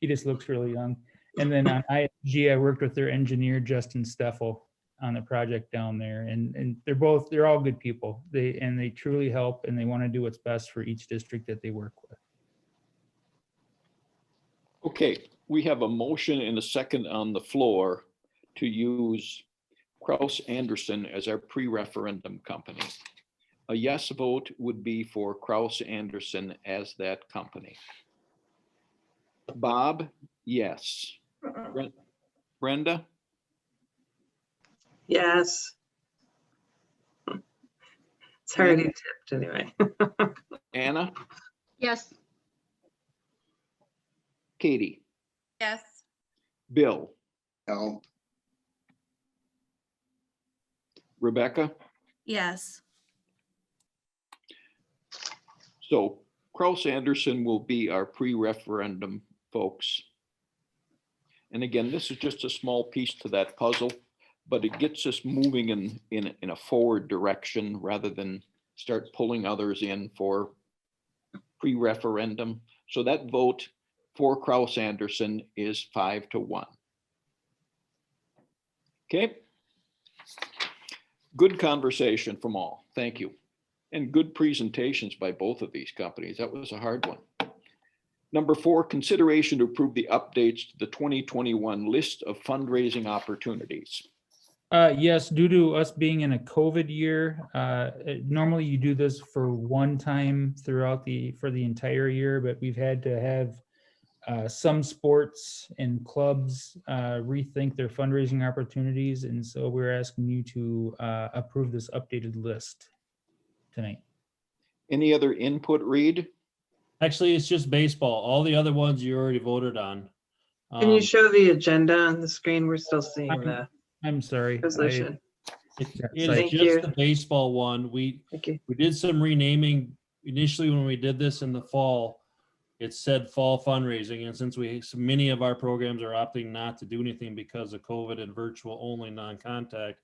He just looks really young. And then on ISG, I worked with their engineer, Justin Steffel, on the project down there. And, and they're both, they're all good people. They, and they truly help and they want to do what's best for each district that they work with. Okay, we have a motion and a second on the floor to use Kraus Anderson as our pre-referendum company. A yes vote would be for Kraus Anderson as that company. Bob, yes. Bren- Brenda, Yes. It's already tipped anyway. Anna, Yes. Katie, Yes. Bill, no, Rebecca. Yes. So Kraus Anderson will be our pre-referendum folks. And again, this is just a small piece to that puzzle, but it gets us moving in, in, in a forward direction rather than start pulling others in for pre-referendum. So that vote for Kraus Anderson is five to one. Okay. Good conversation from all. Thank you. And good presentations by both of these companies. That was a hard one. Number four, consideration to approve the updates to the 2021 list of fundraising opportunities. Uh, yes, due to us being in a COVID year, uh, it- normally you do this for one time throughout the, for the entire year, but we've had to have uh, some sports and clubs uh, rethink their fundraising opportunities, and so we're asking you to uh, approve this updated list tonight. Any other input, Reed? Actually, it's just baseball. All the other ones you already voted on. Can you Um, show the agenda on the screen? We're still seeing the I'm sorry. I- resolution. It Yeah, it thank is you. just the baseball one. We, Thank you. we did some renaming initially when we did this in the fall. It said fall fundraising, and since we, so many of our programs are opting not to do anything because of COVID and virtual only non-contact,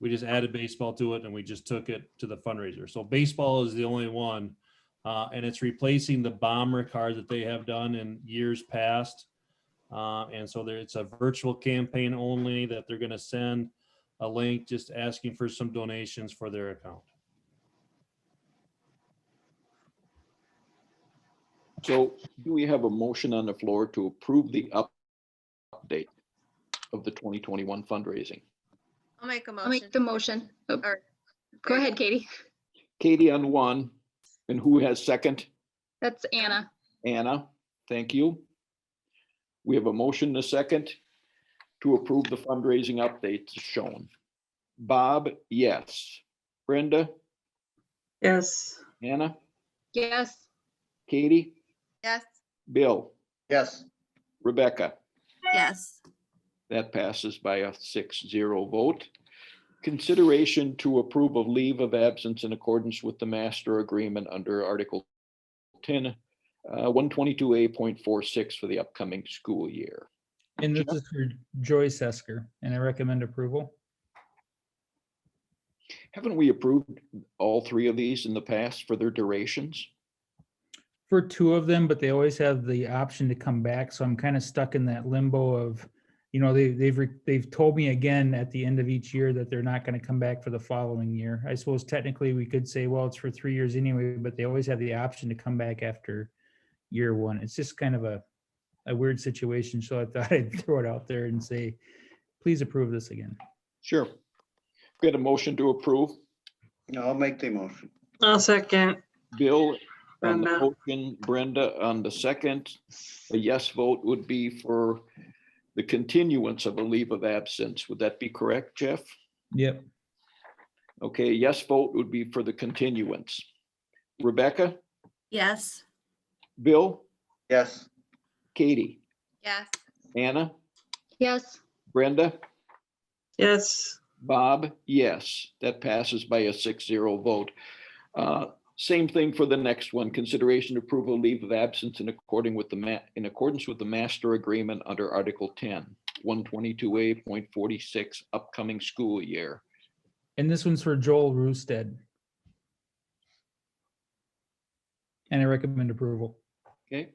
we just added baseball to it and we just took it to the fundraiser. So baseball is the only one. Uh, and it's replacing the bomber card that they have done in years past. Uh, and so there, it's a virtual campaign only that they're gonna send a link just asking for some donations for their account. So do we have a motion on the floor to approve the up- update of the 2021 fundraising? I'll make a I'll motion. make the motion. Oh, Or- Go ahead, Katie. Katie on one, and who has second? That's Anna. Anna, thank you. We have a motion and a second to approve the fundraising updates shown. Bob, yes. Brenda, Yes, Anna, Yes. Katie, Yes. Bill, yes, Rebecca. Yes. That passes by a six zero vote. Consideration to approve of leave of absence in accordance with the master agreement under Article ten, uh, one twenty-two A point four six for the upcoming school year. And this is for Joy Sesker, and I recommend approval. Haven't we approved all three of these in the past for their durations? for two of them, but they always have the option to come back. So I'm kind of stuck in that limbo of, you know, they, they've, re- they've told me again at the end of each year that they're not going to come back for the following year. I suppose technically we could say, well, it's for three years anyway, but they always have the option to come back after year one. It's just kind of a, a weird situation. So I thought I'd throw it out there and say, please approve this again. Sure. Get a motion to approve. no, I'll make the motion, I'll second. Bill on the Brenda. motion, Brenda on the second. A yes vote would be for the continuance of a leave of absence. Would that be correct, Jeff? Yep. Okay, yes vote would be for the continuance. Rebecca, Yes. Bill, yes, Katie, Yes. Anna, Yes. Brenda? Yes, Bob, yes, that passes by a six zero vote. Uh, Same thing for the next one, consideration approval leave of absence in according with the ma, in accordance with the master agreement under Article 10, 122A point 46, upcoming school year. And this one's for Joel Roosted. And I recommend approval. Okay,